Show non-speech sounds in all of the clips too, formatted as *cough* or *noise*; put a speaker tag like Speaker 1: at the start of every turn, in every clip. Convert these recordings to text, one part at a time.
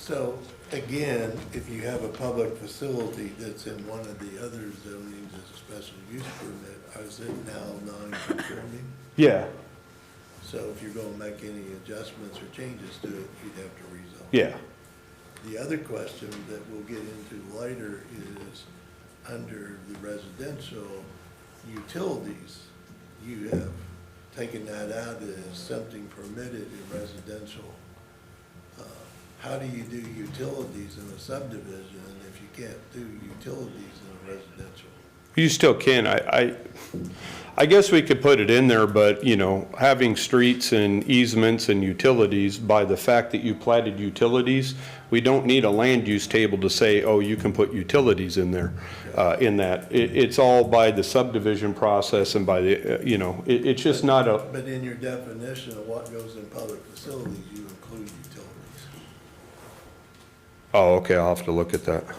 Speaker 1: So, again, if you have a public facility that's in one of the other zonings as a special use permit, is it now non-conforming?
Speaker 2: Yeah,
Speaker 1: So if you're gonna make any adjustments or changes to it, you'd have to rezone.
Speaker 2: yeah,
Speaker 1: The other question that we'll get into later is, under the residential utilities, you have taken that out as something permitted in residential. Uh, How do you do utilities in a subdivision if you can't do utilities in a residential?
Speaker 2: you still can, I, I, I guess we could put it in there, but, you know, having streets and easements and utilities, by the fact that you platted utilities, we don't need a land use table to say, oh, you can put utilities in there, uh, in that. It, it's all by the subdivision process and by the, uh, you know, it, it's just not a,
Speaker 1: But in your definition of what goes in public facilities, you include utilities.
Speaker 2: oh, okay, I'll have to look at that.
Speaker 1: Okay.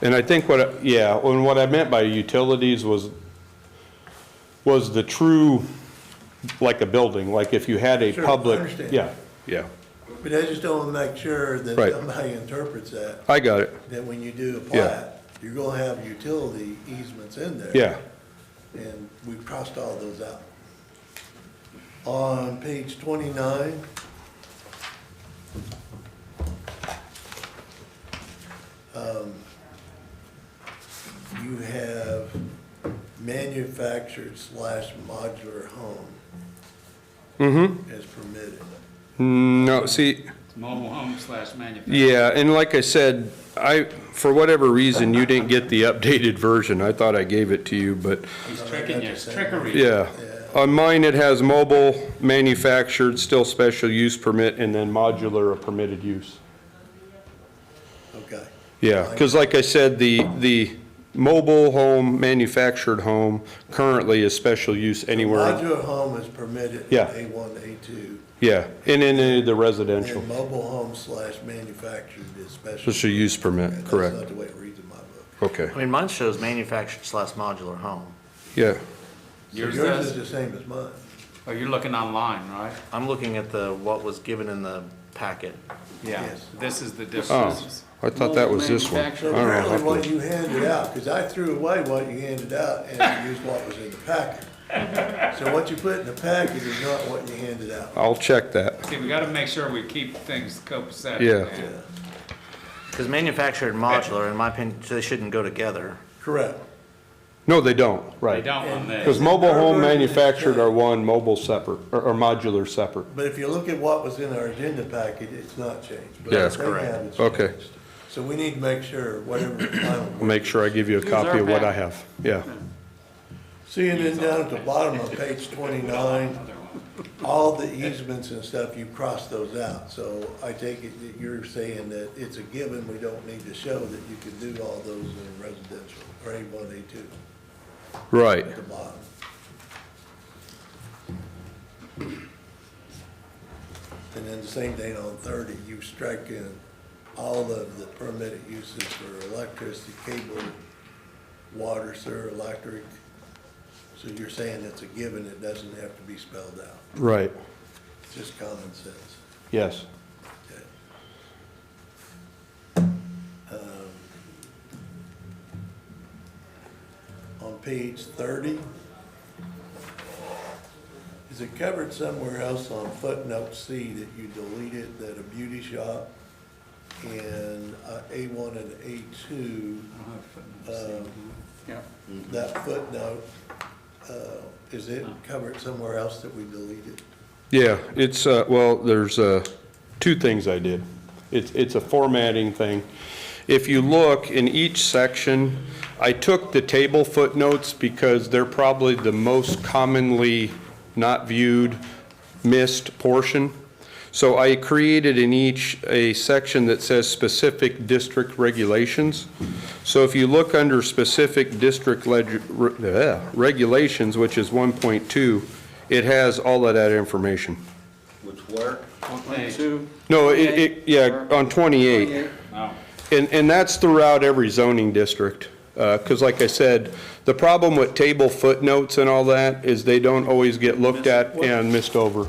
Speaker 2: And I think what, I- yeah, and what I meant by utilities was, was the true, like a building, like if you had a
Speaker 1: Sure, I
Speaker 2: public.
Speaker 1: understand.
Speaker 2: Yeah, yeah,
Speaker 1: But I just don't wanna make sure that
Speaker 2: Right.
Speaker 1: somebody interprets that
Speaker 2: I got it,
Speaker 1: that when you do a
Speaker 2: Yeah.
Speaker 1: plat, you're gonna have utility easements in there.
Speaker 2: yeah,
Speaker 1: And we crossed all those out. On page twenty-nine, um, you have manufactured slash modular home. Mm-hmm. As permitted.
Speaker 2: no, see,
Speaker 3: Mobile home slash manufacturing.
Speaker 2: yeah, and like I said, I, for whatever reason, you didn't get the updated version, I thought I gave it to you, but,
Speaker 3: He's tricking you, it's trickery.
Speaker 2: yeah. On mine, it has mobile, manufactured, still special use permit, and then modular or permitted use.
Speaker 1: Okay.
Speaker 2: Yeah, because like I said, the, the mobile home, manufactured home currently is special use anywhere.
Speaker 1: Modular home is permitted.
Speaker 2: Yeah.
Speaker 1: A one, A two.
Speaker 2: Yeah, and in any of the residential,
Speaker 1: And mobile home slash manufactured is special.
Speaker 2: special use permit,
Speaker 1: That's not
Speaker 2: correct.
Speaker 1: the way it reads in my book.
Speaker 2: Okay,
Speaker 4: I mean, mine shows manufactured slash modular home.
Speaker 2: yeah,
Speaker 3: Yours
Speaker 1: Yours is
Speaker 3: does,
Speaker 1: the same as mine.
Speaker 3: oh, you're looking online, right?
Speaker 4: I'm looking at the, what was given in the packet.
Speaker 3: Yeah,
Speaker 1: Yes.
Speaker 3: this is the
Speaker 2: oh,
Speaker 3: difference.
Speaker 2: I thought that was this one. Uh,
Speaker 3: Manufactured.
Speaker 1: So
Speaker 2: All right,
Speaker 1: apparently
Speaker 2: I'll have
Speaker 1: what
Speaker 2: to-
Speaker 1: you handed out, because I threw away what you handed out and used what was in the packet. So what you put in the packet is not what you handed out.
Speaker 2: I'll check that,
Speaker 3: See, we gotta make sure we keep things copacetic.
Speaker 2: Yeah.
Speaker 3: man.
Speaker 4: Because manufactured and modular, in my opinion, they shouldn't go together.
Speaker 1: Correct.
Speaker 2: no, they don't,
Speaker 3: They
Speaker 2: right.
Speaker 3: don't want
Speaker 2: Because
Speaker 3: that.
Speaker 2: mobile home, manufactured are one, mobile separate, or, or modular separate.
Speaker 1: But if you look at what was in our agenda packet, it's not changed. but
Speaker 2: Yeah, that's
Speaker 1: they
Speaker 2: correct.
Speaker 1: have it
Speaker 2: Okay.
Speaker 1: changed. So we need to make sure whatever the
Speaker 2: *clears throat*
Speaker 1: final
Speaker 2: I'll Make sure I give you a copy of what I have, yeah.
Speaker 1: See, and then down at the bottom of page twenty-nine, all the easements and stuff, you cross those out. So I take it that you're saying that it's a given, we don't need to show that you can do all those in residential, or A one, A two,
Speaker 2: Right,
Speaker 1: at the bottom. And then the same thing on thirty, you strike in all of the permitted uses for electricity, cable, water, sewer, electric. So you're saying it's a given, it doesn't have to be spelled out,
Speaker 2: right,
Speaker 1: It's just common sense.
Speaker 2: yes.
Speaker 1: Okay. Um, On page thirty, is it covered somewhere else on footnote C that you deleted that a beauty shop and A one and A two,
Speaker 3: Oh,
Speaker 1: uh,
Speaker 3: Yeah.
Speaker 1: that footnote, uh, is it covered somewhere else that we deleted?
Speaker 2: Yeah, it's, uh, well, there's uh, two things I did. It's, it's a formatting thing. If you look in each section, I took the table footnotes because they're probably the most commonly not viewed, missed portion. So I created in each a section that says specific district regulations. So if you look under specific district leg- re- uh, regulations, which is 1.2, it has all of that information.
Speaker 5: Which where?
Speaker 3: Hey,
Speaker 2: No, it, it, yeah, on 28.
Speaker 3: No,
Speaker 2: And, and that's throughout every zoning district. Because like I said, the problem with table footnotes and all that is they don't always get looked at and missed over.